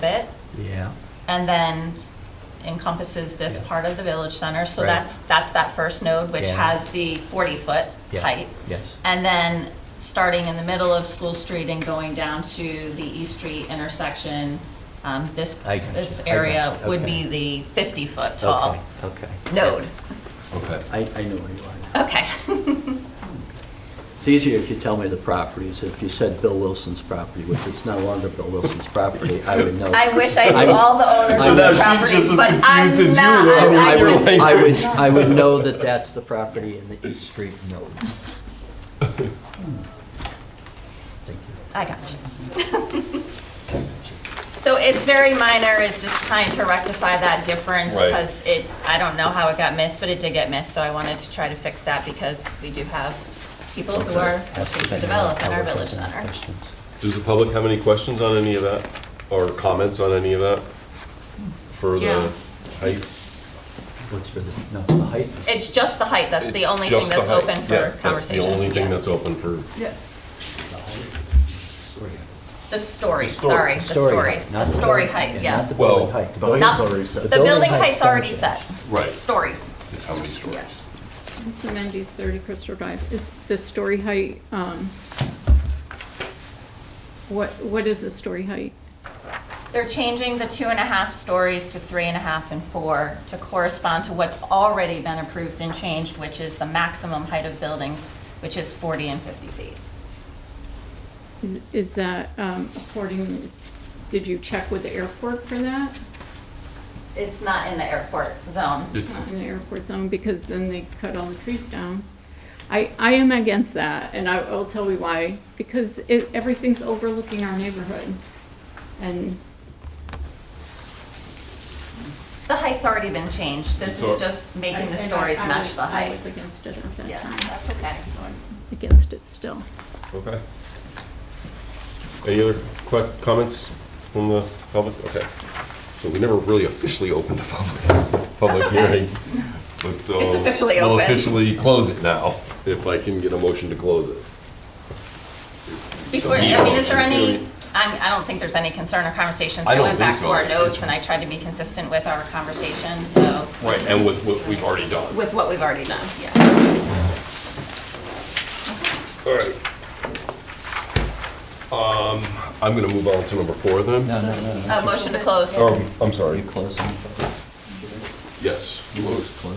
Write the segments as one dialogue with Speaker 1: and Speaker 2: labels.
Speaker 1: bit,
Speaker 2: Yeah.
Speaker 1: and then encompasses this
Speaker 2: Yeah.
Speaker 1: part of the village center. So
Speaker 2: Right.
Speaker 1: that's, that's that first node, which
Speaker 2: Yeah.
Speaker 1: has the 40-foot
Speaker 2: Yeah.
Speaker 1: height.
Speaker 2: Yes.
Speaker 1: And then, starting in the middle of School Street and going down to the East Street intersection, um, this,
Speaker 2: I got
Speaker 1: this
Speaker 2: you. I got
Speaker 1: area
Speaker 2: you.
Speaker 1: would
Speaker 2: Okay.
Speaker 1: be the 50-foot tall
Speaker 2: Okay. okay.
Speaker 1: node.
Speaker 3: Okay.
Speaker 2: I, I know where you are now.
Speaker 1: Okay.
Speaker 2: It's easier if you tell me the properties. If you said Bill Wilson's property, which it's no longer Bill Wilson's property, I would know.
Speaker 1: I wish I
Speaker 2: I
Speaker 1: knew
Speaker 2: would-
Speaker 1: all the owners
Speaker 2: I
Speaker 1: of the
Speaker 2: know, she's
Speaker 1: properties,
Speaker 3: just as
Speaker 1: but I'm
Speaker 3: confused as you
Speaker 1: not.
Speaker 3: were.
Speaker 1: I'm-
Speaker 2: I
Speaker 1: I'm
Speaker 2: would,
Speaker 1: not-
Speaker 2: I would, I would know that that's the property in the East Street node. Thank you.
Speaker 1: I got you. So it's very minor, it's just trying to rectify that difference,
Speaker 3: Right.
Speaker 1: because it, I don't know how it got missed, but it did get missed, so I wanted to try to fix that, because we do have people who are looking to develop in our village center.
Speaker 3: Does the public have any questions on any of that, or comments on any of that? For
Speaker 4: Yeah.
Speaker 3: the heights?
Speaker 2: What's for the, no, the height is.
Speaker 1: It's just the height, that's the only thing
Speaker 3: Just the
Speaker 1: that's
Speaker 3: height.
Speaker 1: open
Speaker 3: Yeah,
Speaker 1: for
Speaker 3: that's
Speaker 1: conversation.
Speaker 3: The only thing
Speaker 1: Yeah.
Speaker 3: that's open for,
Speaker 4: Yeah,
Speaker 2: the height. Sorry.
Speaker 1: The stories,
Speaker 3: story-
Speaker 1: sorry, the
Speaker 2: Story height,
Speaker 1: stories, the
Speaker 2: not
Speaker 1: story
Speaker 2: building- yeah,
Speaker 1: height,
Speaker 2: not
Speaker 1: yes.
Speaker 2: the building
Speaker 3: Well,
Speaker 2: height. The
Speaker 5: building-
Speaker 1: Not-
Speaker 5: It's already set.
Speaker 1: The building
Speaker 2: Building
Speaker 1: height's
Speaker 2: height's
Speaker 1: already
Speaker 2: gotcha.
Speaker 1: set,
Speaker 3: right,
Speaker 1: stories.
Speaker 3: it's how many stories?
Speaker 6: Mr. Mendes, 30 Crystal Drive. Is the story height, um, what, what is the story height?
Speaker 1: They're changing the two and a half stories to three and a half and four to correspond to what's already been approved and changed, which is the maximum height of buildings, which is 40 and 50 feet.
Speaker 6: Is- Is that um, according, did you check with the airport for that?
Speaker 1: It's not in the airport zone.
Speaker 3: It's,
Speaker 6: Not in the airport zone, because then they cut all the trees down. I, I am against that, and I will tell you why, because it, everything's overlooking our neighborhood. And
Speaker 1: The height's already been changed. This
Speaker 3: So-
Speaker 1: is just making the
Speaker 6: And I-
Speaker 1: stories
Speaker 6: I
Speaker 1: match
Speaker 6: was-
Speaker 1: the
Speaker 6: I
Speaker 1: height.
Speaker 6: was against it at
Speaker 1: Yeah,
Speaker 6: that time,
Speaker 1: that's okay.
Speaker 6: against it still.
Speaker 3: okay. Any other que, comments from the public? Okay. So we never really officially opened a public, public
Speaker 1: That's okay.
Speaker 3: hearing. It's
Speaker 1: It's officially open.
Speaker 3: We'll officially close it now, if I can get a motion to close it.
Speaker 1: Before, I mean, is there any, I'm- I don't think there's any concern or conversations.
Speaker 3: I don't
Speaker 1: went back
Speaker 3: think
Speaker 1: to
Speaker 3: so.
Speaker 1: our notes and I tried to be consistent with our conversation, so,
Speaker 3: Right, and with what we've already done.
Speaker 1: with what we've already done, yeah.
Speaker 3: All right. Um, I'm gonna move on to number four then.
Speaker 2: No, no, no, no.
Speaker 1: Uh, Motion to close.
Speaker 3: Um, I'm
Speaker 2: You
Speaker 3: sorry,
Speaker 2: close the public
Speaker 3: yes.
Speaker 2: close the public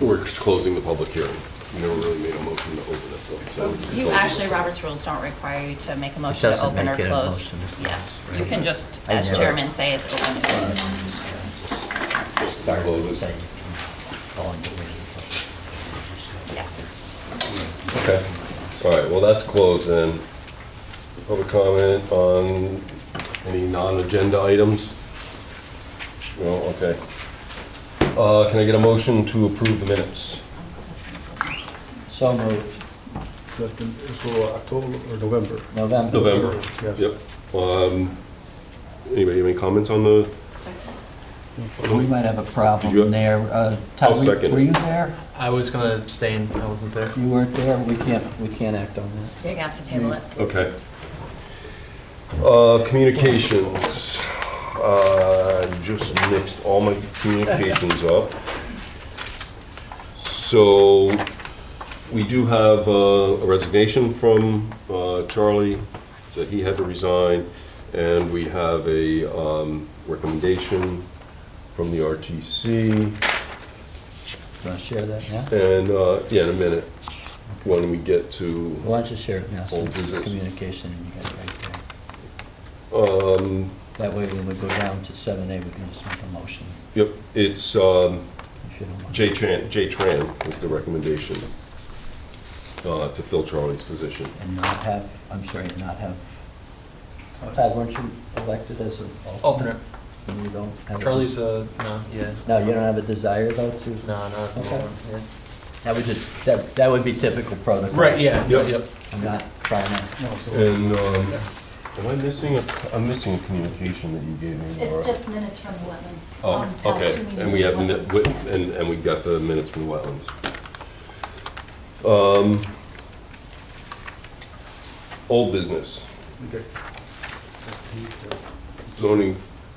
Speaker 2: hearing.
Speaker 3: We're just closing the public hearing. We never really made a motion to open this one, so. we're just
Speaker 1: You
Speaker 3: closing it.
Speaker 1: actually, Robert's rules don't require you to make a motion to
Speaker 2: doesn't
Speaker 1: open or
Speaker 2: make it a
Speaker 1: close.
Speaker 2: motion to
Speaker 1: Yeah,
Speaker 2: close,
Speaker 1: you
Speaker 2: right.
Speaker 1: can just,
Speaker 2: I
Speaker 1: as
Speaker 2: know.
Speaker 1: chairman, say it's open. or closed.
Speaker 3: Start close it.
Speaker 2: Saying, falling to me.
Speaker 1: Yeah.
Speaker 3: Okay. All right, well, that's closed then. Public comment on any non-agenda items? No, okay. Uh, can I get a motion to approve the minutes?
Speaker 2: So moved,
Speaker 5: So October or November?
Speaker 2: November.
Speaker 3: November.
Speaker 5: Yes.
Speaker 3: Yep. Um, Anybody have any comments on the?
Speaker 2: We might have a
Speaker 3: Did you-
Speaker 2: problem there. Uh, Todd,
Speaker 3: I'll
Speaker 2: were-
Speaker 3: second
Speaker 2: Were
Speaker 3: it.
Speaker 2: you there?
Speaker 5: I was gonna abstain, I wasn't there.
Speaker 2: You weren't there? We can't, we can't act on that.
Speaker 1: You're gonna have to table it.
Speaker 3: Okay. Uh, Communications. Uh, Just mixed all my communications up. So we do have uh, a resignation from uh, Charlie, that he had to resign, and we have a um, recommendation from the RTC.
Speaker 2: Want to share that now?
Speaker 3: And, uh, yeah, in a minute, when we get to
Speaker 2: Why don't you share it now,
Speaker 3: Old
Speaker 2: since it's
Speaker 3: business.
Speaker 2: communication, and you got it right there.
Speaker 3: Um,
Speaker 2: That way, when we go down to seven A, we can just make a motion,
Speaker 3: Yep, it's um,
Speaker 2: if you don't mind.
Speaker 3: Jay Tran, Jay Tran was the recommendation uh, to fill Charlie's position.
Speaker 2: And not have, I'm sorry, and not have, Todd, weren't you elected as an alternate?
Speaker 5: Alternate.
Speaker 2: And you don't have. a-
Speaker 5: Charlie's, uh, no, yeah,
Speaker 2: No, you don't have a desire though to?
Speaker 5: no, not at the
Speaker 2: Okay.
Speaker 5: moment, yeah.
Speaker 2: That would just, that, that would be typical protocol.
Speaker 5: Right, yeah.
Speaker 3: Yep.
Speaker 2: I'm not trying to,
Speaker 3: And um, am I missing, a- I'm missing a communication that you gave me, Laura?
Speaker 7: It's just minutes from the wetlands.
Speaker 3: Oh,
Speaker 7: um, past
Speaker 3: okay,
Speaker 7: two meetings
Speaker 3: and we have,
Speaker 7: from
Speaker 3: mi-
Speaker 7: wetlands,
Speaker 3: wi-
Speaker 7: yeah.
Speaker 3: and, and we got the minutes from the wetlands. Um, Old business,
Speaker 5: Okay.
Speaker 3: zoning